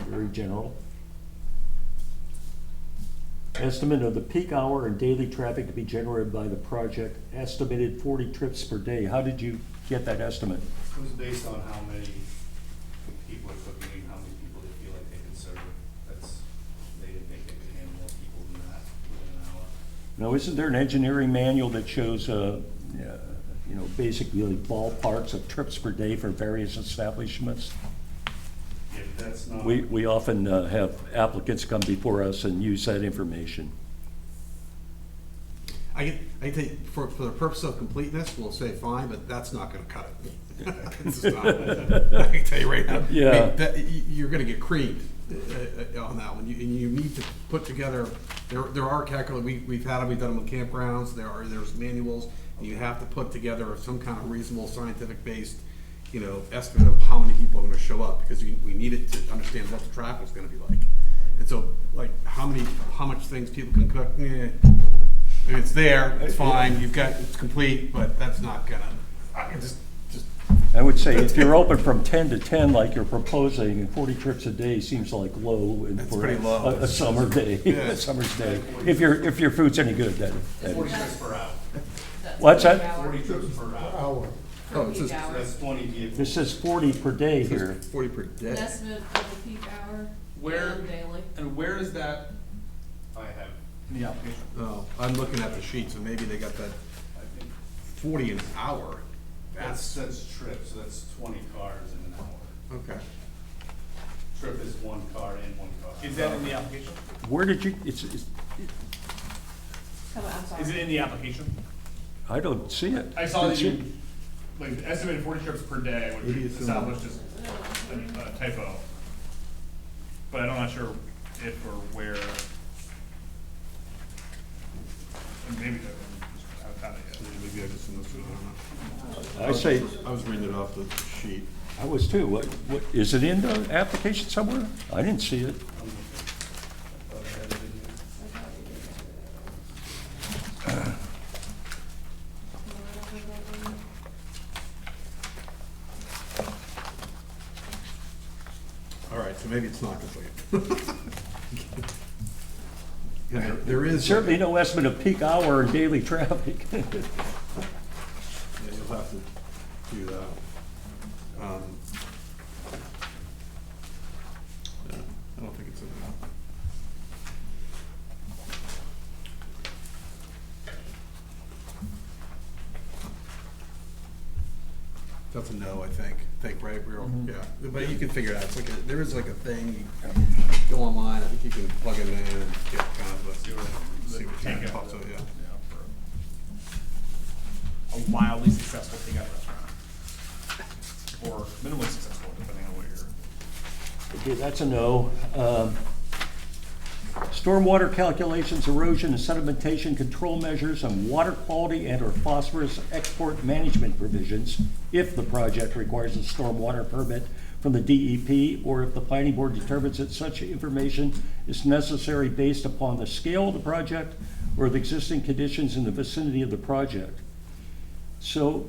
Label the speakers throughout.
Speaker 1: Attorney General. Estimate of the peak hour and daily traffic to be generated by the project, estimated forty trips per day. How did you get that estimate?
Speaker 2: It was based on how many people are cooking and how many people they feel like they can serve. That's, they didn't think they could handle more people than that within an hour.
Speaker 1: Now, isn't there an engineering manual that shows, uh, uh, you know, basically ballparks of trips per day for various establishments?
Speaker 2: Yeah, but that's not,
Speaker 1: We, we often uh, have applicants come before us and use that information.
Speaker 3: I can, I can tell you, for, for the purpose of completeness, we'll say fine, but that's not gonna cut it. It's just not. I can tell you right now. I mean,
Speaker 1: Yeah.
Speaker 3: that- you, you're gonna get creamed uh, uh, on that one, You- and you need to put together, there, there are calculators, we, we've had them, we've done them with campgrounds, there are, there's manuals. and You have to put together some kind of reasonable scientific-based, you know, estimate of how many people are gonna show up, because we, we need it to understand what the traffic's gonna be like. And so, like, how many, how much things people can cook, eh, if it's there, it's fine, you've got, it's complete, but that's not gonna, I can just, just,
Speaker 1: I would say if you're open from 10 to 10 like you're proposing, 40 trips a day seems like low and
Speaker 3: That's
Speaker 1: for
Speaker 3: pretty low.
Speaker 1: a a summer day,
Speaker 3: Yeah.
Speaker 1: a summer's day. If your, if your food's any good, then. then-
Speaker 2: forty trips per hour,
Speaker 1: What's that?
Speaker 2: forty trips per hour.
Speaker 3: oh, it's just
Speaker 4: Peak
Speaker 2: So
Speaker 4: hour,
Speaker 2: That's twenty vehicles.
Speaker 1: This says 40 per day here.
Speaker 3: forty per day.
Speaker 4: an estimate of the peak hour.
Speaker 5: Where-
Speaker 4: and Daily.
Speaker 5: And where is that
Speaker 2: I have,
Speaker 5: in the application?
Speaker 3: Oh, I'm looking at the sheet, so maybe they got that
Speaker 2: I think,
Speaker 3: forty an hour.
Speaker 2: that's, that's trips, so that's twenty cars in an hour.
Speaker 3: Okay.
Speaker 2: Trip is one car in, one car. out.
Speaker 5: Is that in the application?
Speaker 1: Where did you, it's, it's-
Speaker 4: Come on, I'm sorry.
Speaker 5: Is it in the application?
Speaker 1: I don't see it.
Speaker 5: I saw that you, like, estimated forty trips per day, which
Speaker 3: Maybe
Speaker 5: we
Speaker 3: it's in
Speaker 5: established as a a typo. But I'm not sure if or where. And Maybe that one, I haven't found it yet.
Speaker 3: Maybe I just missed it, I
Speaker 1: I say,
Speaker 3: don't know. I was reading it off the sheet.
Speaker 1: I was too. What, what, is it in the application somewhere? I didn't see it.
Speaker 3: All right, so maybe it's not complete. Yeah, there- there is.
Speaker 1: Certainly no estimate of peak hour and daily traffic.
Speaker 3: Yeah, you'll have to do that. Um, yeah, I don't think it's in there. That's a no, I think, think, right, we're, all- yeah, but you can figure it out, it's like, a- there is like a thing, you go online, I think you can plug it in and get kind of,
Speaker 5: See where
Speaker 3: a-
Speaker 5: the
Speaker 3: see what kind of
Speaker 5: takeout-
Speaker 3: pops up, yeah.
Speaker 5: for A wildly successful takeout restaurant. Or minimally successful, depending on what you're.
Speaker 1: Okay, that's a no. Um, Stormwater calculations, erosion and sedimentation control measures, and water quality and/or phosphorus export management provisions if the project requires a stormwater permit from the DEP, or if the planning board determines that such information is necessary based upon the scale of the project or the existing conditions in the vicinity of the project. So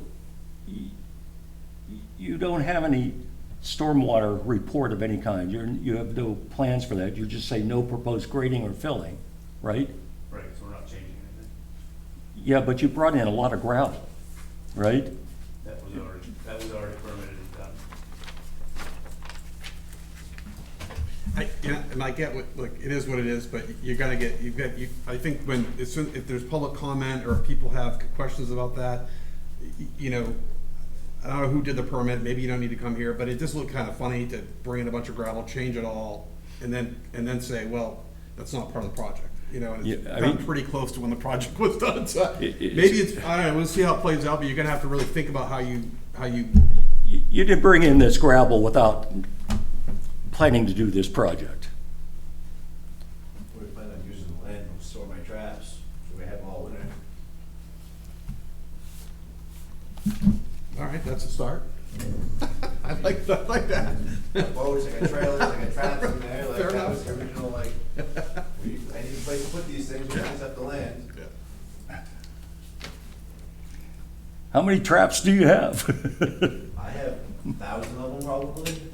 Speaker 1: you don't have any stormwater report of any kind, you're, you have no plans for that, you just say no proposed grading or filling, right?
Speaker 2: Right, so we're not changing anything.
Speaker 1: Yeah, but you brought in a lot of gravel, right?
Speaker 2: That was already, that was already permitted and done.
Speaker 3: I, yeah, and I get what, look, it is what it is, but you gotta get, you've got, you, I think when, as soon, if there's public comment or if people have questions about that, y- you know, I don't know who did the permit, maybe you don't need to come here, but it just looked kinda funny to bring in a bunch of gravel, change it all, and then, and then say, well, that's not part of the project, you know, and it's
Speaker 1: Yeah, I
Speaker 3: gotten
Speaker 1: mean-
Speaker 3: pretty close to when the project was done, so
Speaker 1: It- it's-
Speaker 3: maybe it's, I don't know, we'll see how it plays out, but you're gonna have to really think about how you, how you,
Speaker 1: You, you didn't bring in this gravel without planning to do this project.
Speaker 6: We're planning on using the land to store my traps, so we have them all winter.
Speaker 3: all right, that's a start. I like, I like that.
Speaker 6: Boats, I got trailers, I got traps in there, like,
Speaker 3: Fair
Speaker 6: that was
Speaker 3: enough.
Speaker 6: the original, like, we, I need a place to put these things, we fix up the land.
Speaker 3: Yeah.
Speaker 1: How many traps do you have?
Speaker 6: I have a thousand of them probably,